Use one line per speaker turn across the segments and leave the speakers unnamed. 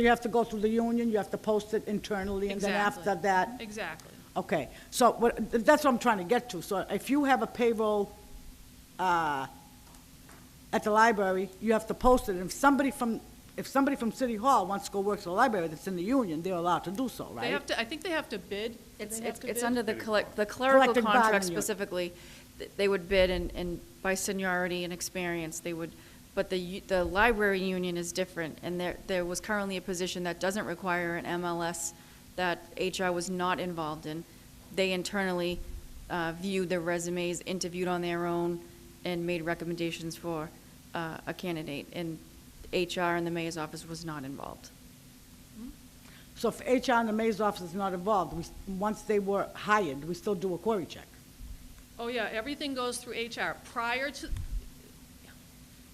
You have to go through the union, you have to post it internally, and then
Exactly.
after that,
Exactly.
okay. So what, that's what I'm trying to get to. So if you have a payroll, uh, at the library, you have to post it. And if somebody from, if somebody from City Hall wants to go work at the library that's in the union, they're allowed to do so, right?
They have to, I think they have to bid. Do
It's,
they have
it's,
to
it's
bid?
under the collect, the clerical
Collective bargaining
contract
unit.
specifically, th- they would bid and, and by seniority and experience, they would, but the, u- the library union is different, and there, there was currently a position that doesn't require an MLS that HR was not involved in. They internally, uh, viewed their resumes, interviewed on their own, and made recommendations for, uh, a candidate, and HR and the mayor's office was not involved.
So if HR and the mayor's office is not involved, we, once they were hired, we still do a query check.
Oh, yeah, everything goes through HR. Prior to,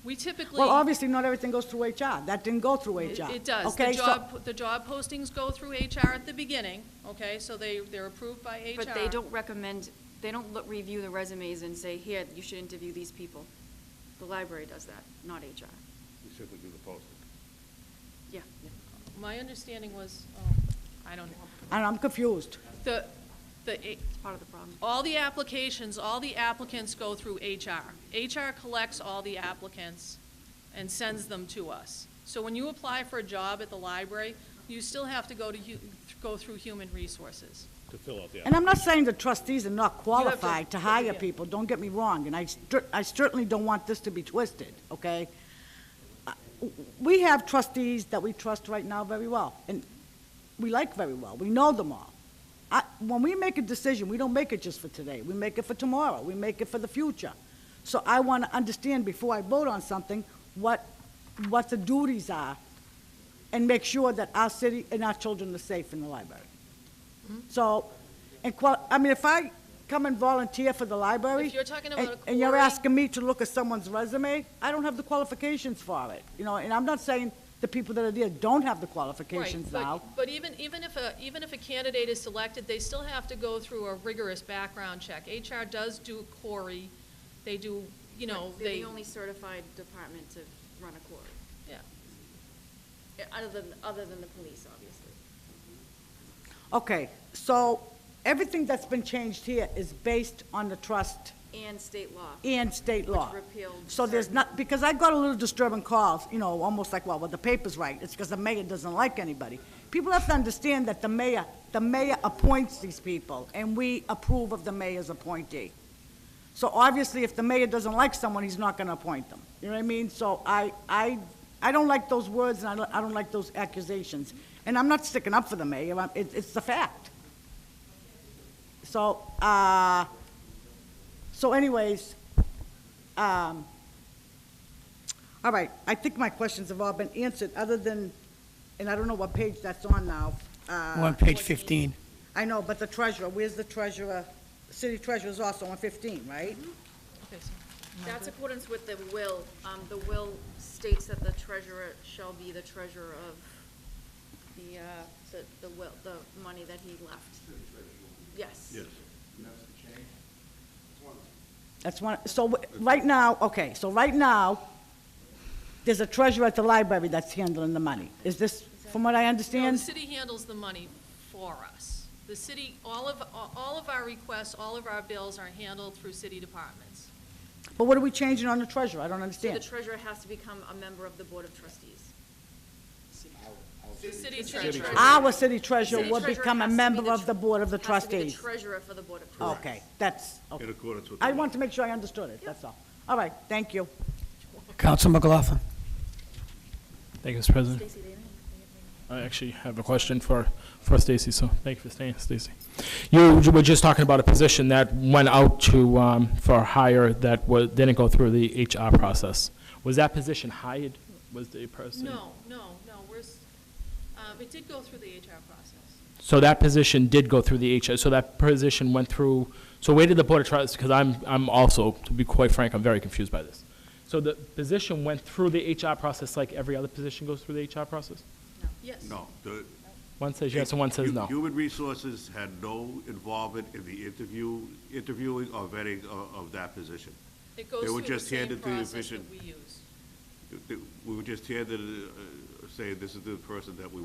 we typically.
Well, obviously, not everything goes through HR. That didn't go through
It-
HR.
It does. The
Okay, so-
job, the job postings go through HR at the beginning, okay? So they, they're approved by HR.
But they don't recommend, they don't look, review the resumes and say, here, you should interview these people. The library does that, not HR.
We simply do the posting.
Yeah.
My understanding was, oh, I don't know.
And I'm confused.
The, the,
It's part of the problem.
all the applications, all the applicants go through HR. HR collects all the applicants and sends them to us. So when you apply for a job at the library, you still have to go to, hu- go through human resources.
To fill out the
And I'm not saying the trustees are not
have to-
qualified to hire
yeah.
people, don't get me wrong, and I cer- I certainly don't want this to be twisted, okay? Uh, We have trustees that we trust right now very well, and we like very well, we know them all. I, when we make a decision, we don't make it just for today, we make it for tomorrow, we make it for the future. So I want to understand before I vote on something, what, what the duties are, and make sure that our city and our children are safe in the library. So, and qual, I mean, if I come and volunteer for the library.
If you're talking
and-
about a
And you're
query-
asking me to look at someone's resume, I don't have the qualifications for it, you know, and I'm not saying the people that are there don't have the qualifications
Right, but-
now.
But even, even if a, even if a candidate is selected, they still have to go through a rigorous background check. HR does do query, they do, you know,
They're
they,
the only certified department to run a court, eh,
yeah.
other than, other than the police, obviously.
Okay, so everything that's been changed here is based on the trust
And state law.
and state law.
repealed
So there's
certain-
not, because I got a little disturbing calls, you know, almost like, well, well, the paper's right, it's because the mayor doesn't like anybody. People have to understand that the mayor, the mayor appoints these people, and we approve of the mayor's appointee. So obviously, if the mayor doesn't like someone, he's not gonna appoint them. You know what I mean? So I, I, I don't like those words, and I don't, I don't like those accusations. And I'm not sticking up for the mayor, I'm- it, it's the fact. So, uh, so anyways, um, all right, I think my questions have all been answered, other than, and I don't know what page that's on now. Uh,
We're on page 15.
I know, but the treasurer, where's the treasurer? City treasurer's also on 15, right?
Okay, so-
That's accordance with the will. Um, the will states that the treasurer shall be the treasurer of the, uh, the, the will, the money that he left. Yes. Yes.
That's one, so w- right now, okay, so right now, there's a treasurer at the library that's handling the money. Is this, from what I
No, the
understand?
city handles the money for us. The city, all of, all of our requests, all of our bills are handled through city departments.
But what are we changing on the treasurer? I don't
So the
understand.
treasurer has to become a member of the board of trustees.
The city treasurer.
Our city treasurer
City
will
treasurer
become a
has to be
member
the
of
tr-
the board of the
has to be
trustees.
the treasurer for the board of
Oh.
trustees.
Okay, that's, okay.
In accordance with the
I
law.
want to make sure I understood it, that's all. All right, thank you.
Counsel McLaughlin.
Thank you, Mr. President.
Stacy, they didn't-
I actually have a question for, for Stacy, so thank you for staying, Stacy. You were just talking about a position that went out to, um, for hire that was, didn't go through the HR process. Was that position hired? Was the person?
No, no, no, we're, s- um, it did go through the HR process.
So that position did go through the HR, so that position went through, so where did the Board of Trustees, because I'm, I'm also, to be quite frank, I'm very confused by this. So the position went through the HR process like every other position goes through the HR process?
Yes.
No. the-
One says yes and one says no.
Human Resources had no involvement in the interview, interviewing or vetting uh, of, of that position.
It
They
goes
were
through the
just
same
handed through the
process
vision.
that we use.
We were just handed a, a say, uh, this is the person that we